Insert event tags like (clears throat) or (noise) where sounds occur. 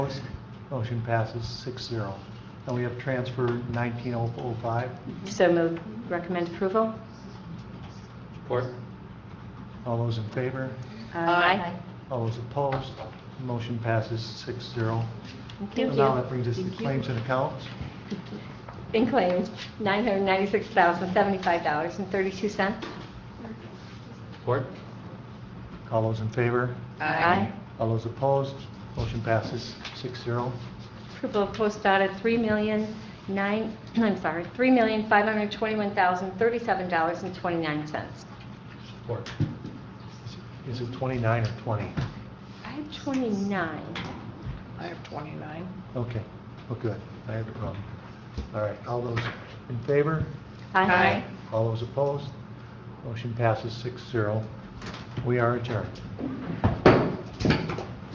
Opposed? Motion passes six zero. And we have transfer 1905. So moved, recommend approval? Support? All those in favor? All those opposed? Motion passes six zero. Thank Now you. that brings us to claims and accounts. In claims, $996,075.32. Support? All those in favor? Aye. All those opposed? Motion passes six zero. Approval of post audit, three million nine, (clears throat) I'm sorry, $3,521,037.29. Support? Is it 29 or 20? I have 29. I have 29. Okay, well, good. I had it wrong. All right, all those in favor? Aye. All those opposed? Motion passes six zero. We are adjourned.